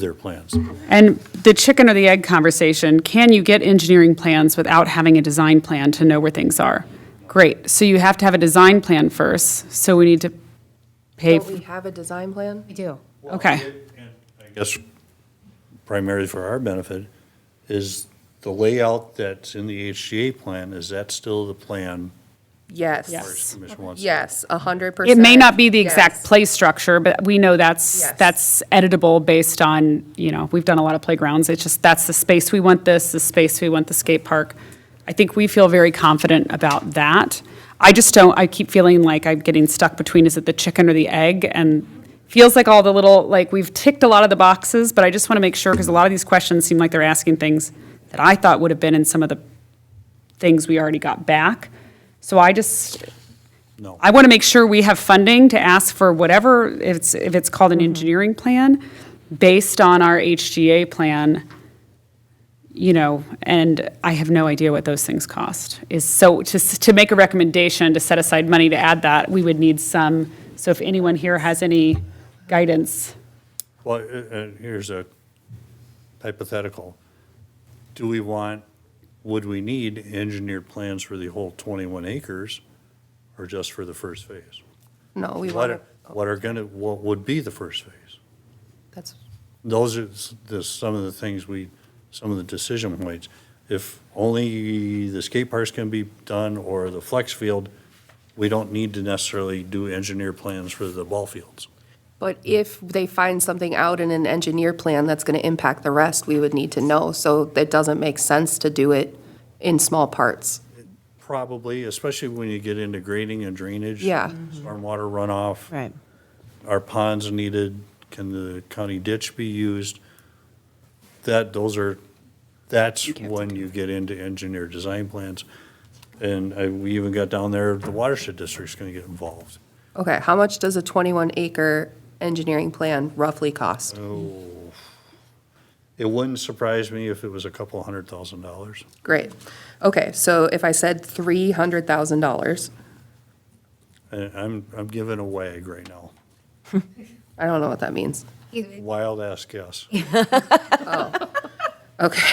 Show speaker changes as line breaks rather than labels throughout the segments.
their plans.
And the chicken or the egg conversation, can you get engineering plans without having a design plan to know where things are? Great, so you have to have a design plan first, so we need to pay,
Don't we have a design plan?
We do.
okay.
And I guess primarily for our benefit, is the layout that's in the HGA plan, is that still the plan?
Yes.
Commission wants?
Yes, a hundred percent.
It may not be the exact
Yes.
play structure, but we know that's,
Yes.
that's editable based on, you know, we've done a lot of playgrounds, it's just, that's the space we want this, the space we want the skate park. I think we feel very confident about that. I just don't, I keep feeling like I'm getting stuck between, is it the chicken or the egg? And feels like all the little, like, we've ticked a lot of the boxes, but I just want to make sure, because a lot of these questions seem like they're asking things that I thought would have been in some of the things we already got back. So I just,
No.
I want to make sure we have funding to ask for whatever, if it's, if it's called an engineering plan, based on our HGA plan, you know, and I have no idea what those things cost. Is, so to, s- to make a recommendation, to set aside money to add that, we would need some, so if anyone here has any guidance.
Well, uh, uh, here's a hypothetical. Do we want, would we need engineered plans for the whole 21 acres or just for the first phase?
No, we
What
want
are,
to,
what are gonna, what would be the first phase?
that's,
those are s- the, some of the things we, some of the decision points. If only the skate parks can be done or the flex field, we don't need to necessarily do engineer plans for the ball fields.
but if they find something out in an engineer plan that's going to impact the rest, we would need to know. So that doesn't make sense to do it in small parts.
Probably, especially when you get into grading and drainage.
Yeah.
Mm-hmm. Stormwater runoff.
Right.
Are ponds needed? Can the county ditch be used? That, those are, that's when you get into engineer design plans. And I, we even got down there, the watershed district's gonna get involved.
Okay, how much does a twenty-one acre engineering plan roughly cost?
It wouldn't surprise me if it was a couple hundred thousand dollars.
Great. Okay, so if I said three hundred thousand dollars,
And I'm, I'm giving a wag right now.
I don't know what that means.
Wild ass guess.
Okay.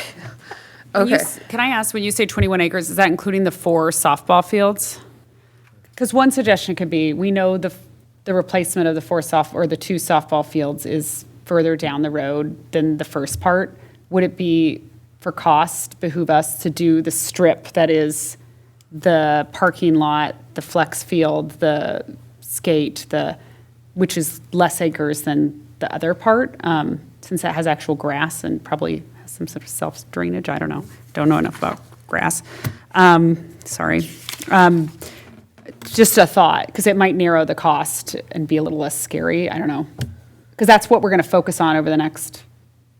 Can you
Okay.
s- Can I ask, when you say 21 acres, is that including the four softball fields? Because one suggestion could be, we know the, f- the replacement of the four soft, or the two softball fields is further down the road than the first part. Would it be, for cost, behoove us to do the strip that is the parking lot, the flex field, the skate, the, which is less acres than the other part? um, Since that has actual grass and probably has some sort of self-drainage, I don't know. Don't know enough about grass. Um, Sorry. Um, just a thought, because it might narrow the cost and be a little less scary. I don't know. Because that's what we're going to focus on over the next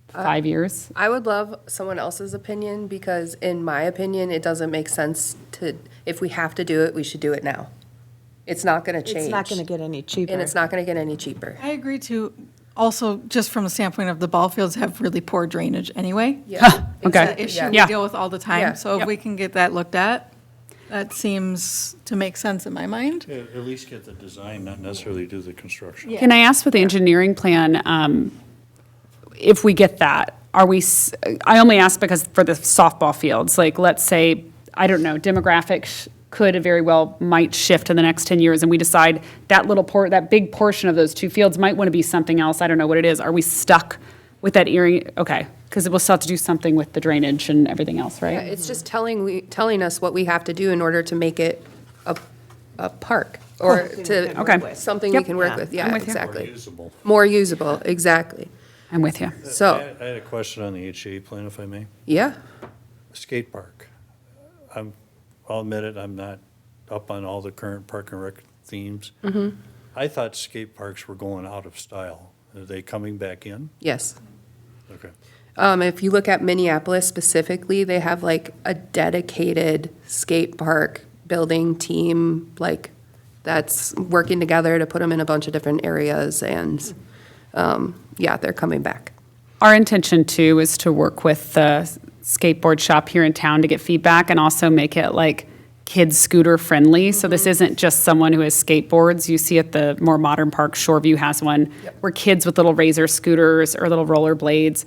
five years.
I would love someone else's opinion because in my opinion, it doesn't make sense to, if we have to do it, we should do it now. It's not going to change.
It's not going to get any cheaper.
And it's not going to get any cheaper.
I agree too. Also, just from the standpoint of the ball fields have really poor drainage anyway.
Yeah.
okay.
It's an issue we
Yeah.
deal with all the
Yeah.
time. So
Yep.
if we can get that looked at, that seems to make sense in my mind.
At least get the design, not necessarily do the construction.
Can I ask with the engineering plan, um, if we get that, are we, s- I only ask because for the softball fields, like, let's say, I don't know, demographics could very well, might shift in the next 10 years, and we decide that little port, that big portion of those two fields might want to be something else, I don't know what it is, are we stuck with that earring, okay, because we'll still have to do something with the drainage and everything else, right?
It's just telling, we telling us what we have to do in order to make it a, a park or to.
work with.
Something we
Yep.
can work with,
I'm
yeah,
with you.
exactly.
Usable.
More usable, exactly.
I'm with you.
I
So,
had- I had a question on the HA plan, if I may.
yeah,
Skate park. I'm, I'll admit it, I'm not up on all the current park and rec themes. I thought skate parks were going out of style. Are they coming back in?
yes.
Okay.
Um, if you look at Minneapolis specifically, they have like a dedicated skate park building team, like that's working together to put them in a bunch of different areas and, um, yeah, they're coming back.
Our intention too is to work with the skateboard shop here in town to get feedback and also make it like kids scooter friendly. So this isn't just someone who has skateboards. You see at the more modern park, Shoreview has one, where kids with little razor scooters or little roller blades